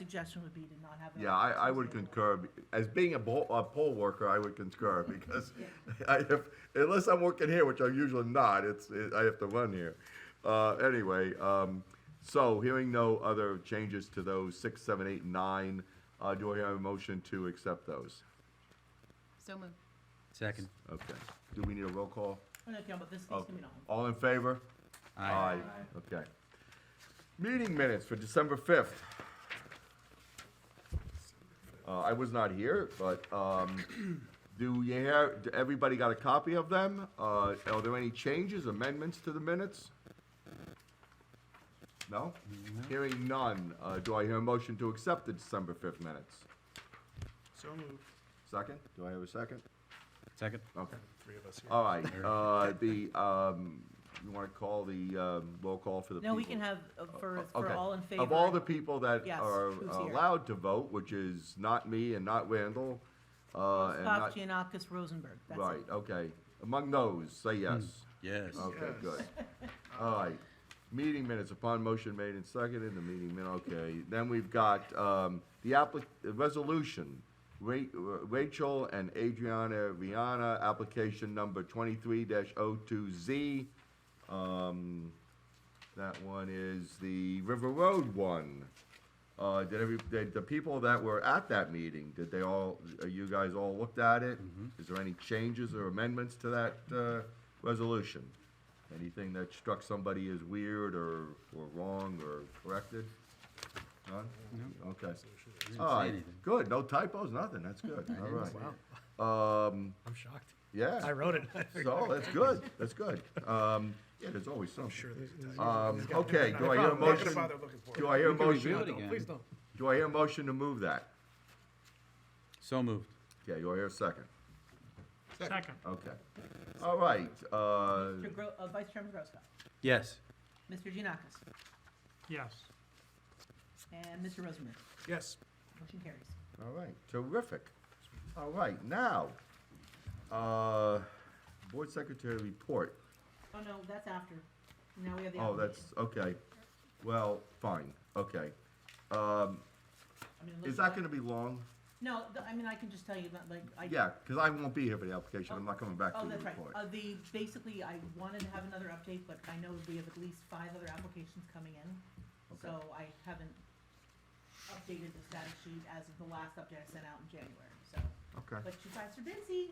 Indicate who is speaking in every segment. Speaker 1: suggestion would be to not have. it on
Speaker 2: Yeah, I, I would
Speaker 1: Tuesday.
Speaker 2: concur, be- as being a poll, a poll worker, I would concur, because I, if, unless I'm working here, which I'm usually not, it's, it- I have to run here. Uh, anyway, um, so hearing no other changes to those six, seven, eight, and nine, uh, do I have a motion to accept those?
Speaker 3: So moved.
Speaker 4: Second.
Speaker 2: Okay, do we need a roll call?
Speaker 1: Oh, no, Campbell, this needs to be on.
Speaker 2: All in favor?
Speaker 4: Aye.
Speaker 2: Okay. Meeting minutes for December fifth. Uh, I was not here, but, um, do you hear, d- everybody got a copy of them? Uh, are there any changes, amendments to the minutes? No? Hearing none, uh, do I hear a motion to accept the December fifth minutes?
Speaker 5: So moved.
Speaker 2: Second, do I have a second?
Speaker 4: Second.
Speaker 2: Okay.
Speaker 5: Three of us here.
Speaker 2: All right, uh, the, um, you wanna call the, um, roll call for the people?
Speaker 1: No, we can have, uh, for, for
Speaker 2: Okay.
Speaker 1: all in favor.
Speaker 2: Of all the people that
Speaker 1: Yes,
Speaker 2: are
Speaker 1: who's here?
Speaker 2: allowed to vote, which is not me and not Randall, uh, and
Speaker 1: Stoff,
Speaker 2: not,
Speaker 1: Giannakis, Rosenberg, that's
Speaker 2: right,
Speaker 1: it.
Speaker 2: okay. Among those, say yes.
Speaker 4: Yes.
Speaker 2: Okay,
Speaker 5: Yes.
Speaker 2: good. All right. Meeting minutes upon motion made and seconded, the meeting min, okay. Then we've got, um, the applic, the resolution. Ra- Rachel and Adriana Rihanna, application number twenty-three 2 Z. Um, that one is the River Road one. Uh, did every, did the people that were at that meeting, did they all, uh, you guys all looked at it? Is there any changes or amendments to that, uh, resolution? Anything that struck somebody as weird or, or wrong or corrected? None? Okay. All right,
Speaker 4: anything.
Speaker 2: good, no typos, nothing, that's good, all right. Um,
Speaker 5: I'm shocked.
Speaker 2: yeah.
Speaker 5: I wrote it.
Speaker 2: So, that's good, that's good. Um, yeah, there's always something.
Speaker 5: Sure. there's- there's-
Speaker 2: Um,
Speaker 5: there's got-
Speaker 2: okay,
Speaker 5: no,
Speaker 2: do
Speaker 5: no,
Speaker 2: I hear a
Speaker 5: I'm not gonna
Speaker 2: motion?
Speaker 5: bother looking for it.
Speaker 2: Do I hear a
Speaker 4: We can review
Speaker 2: motion?
Speaker 4: it again.
Speaker 5: Please don't.
Speaker 2: Do I hear a motion to move that?
Speaker 4: So moved.
Speaker 2: Okay, do I hear a second?
Speaker 5: Second.
Speaker 2: Okay. All right, uh,
Speaker 1: Mr. Gro, uh, Vice Chairman Grosskopf,
Speaker 4: Yes.
Speaker 1: Mr. Giannakis,
Speaker 5: Yes.
Speaker 1: and Mr. Rosenberg,
Speaker 5: Yes.
Speaker 1: motion carries.
Speaker 2: all right, terrific. All right, now, uh, Board Secretary report.
Speaker 1: Oh, no, that's after, now we have the
Speaker 2: Oh,
Speaker 1: application.
Speaker 2: that's, okay. Well, fine, okay. Um,
Speaker 1: I mean,
Speaker 2: is
Speaker 1: unless-
Speaker 2: that gonna be long?
Speaker 1: No, th- I mean, I can just tell you, that, like, I.
Speaker 2: Yeah, because I won't be here for the application, I'm not coming back
Speaker 1: Oh,
Speaker 2: to the
Speaker 1: that's right.
Speaker 2: report.
Speaker 1: Uh, the, basically, I wanted to have another update, but I know we have at least five other applications coming in.
Speaker 2: Okay.
Speaker 1: So I haven't updated the status sheet as of the last update I sent out in January, so.
Speaker 2: Okay,
Speaker 1: But you guys are busy.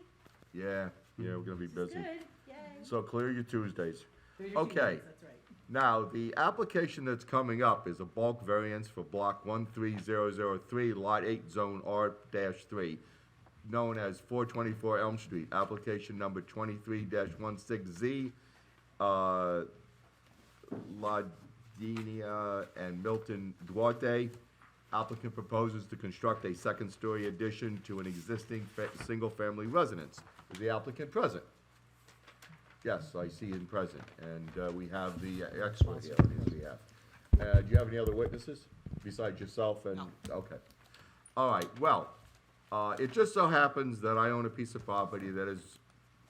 Speaker 2: yeah, yeah, we're gonna be
Speaker 1: This is
Speaker 2: busy.
Speaker 1: good. Yay.
Speaker 2: So clear your Tuesdays.
Speaker 1: They're your two
Speaker 2: Okay.
Speaker 1: days, That's right.
Speaker 2: Now, the application that's coming up is a bulk variance for block one three zero zero three, lot eight, zone R three, known as four twenty-four Elm Street, application number twenty-three 16 Z. Uh, Ladinia and Milton Duarte. Applicant proposes to construct a second-story addition to an existing fa- single-family residence. Is the applicant present? Yes, I see him present, and uh, we have the expert here on his behalf. Uh, Do you have any other witnesses besides yourself and? Okay. All right, well, uh, it just so happens that I own a piece of property that is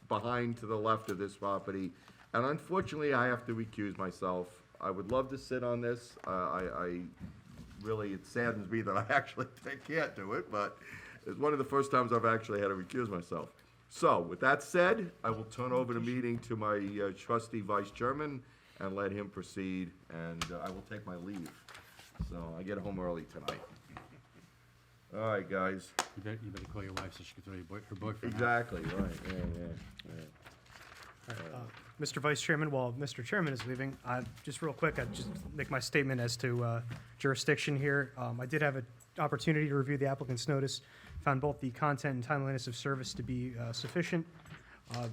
Speaker 2: behind to the left of this property, and unfortunately, I have to recuse myself. I would love to sit on this. Uh, I, I, really, it saddens me that I actually can't do it, but it's one of the first times I've actually had to recuse myself. So, with that said, I will turn over the meeting to my uh, trusty vice chairman and let him proceed, and uh, I will take my leave. So, I get home early tonight. All right, guys.
Speaker 4: You better, you better call your wife so she can throw your boy, her boyfriend out.
Speaker 2: Exactly, right, yeah, yeah, yeah.
Speaker 5: Mr. Uh, Vice Chairman, while Mr. Chairman is leaving, I, just real quick, I'd just make my statement as to uh, jurisdiction here. Um, I did have an opportunity to review the applicant's notice, found both the content and timeliness of service to be uh, sufficient. Uh,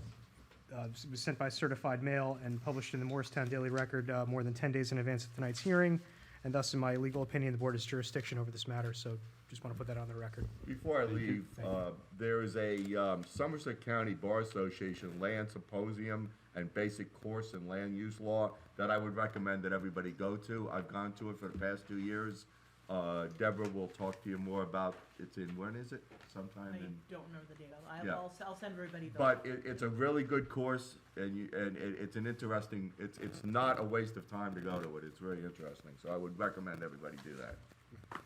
Speaker 5: uh, It was sent by certified mail and published in the Morristown Daily Record uh, more than 10 days in advance of tonight's hearing, and thus, in my legal opinion, the board has jurisdiction over this matter, so just want to put that on the record.
Speaker 2: Before I leave, uh, there is a um, Somerset County Bar Association Land Symposium and Basic Course in Land Use Law that I would recommend that everybody go to. I've gone to it for the past two years. Uh, Deborah will talk to you more about, it's in, when is it? Sometime
Speaker 1: I
Speaker 2: in
Speaker 1: don't remember the date. I'll,
Speaker 2: Yeah.
Speaker 1: I'll, I'll send everybody the.
Speaker 2: but it, it's a really good course, and you, and it, it's an interesting, it's, it's not a waste of time to go to it, it's really interesting, so I would recommend everybody do that.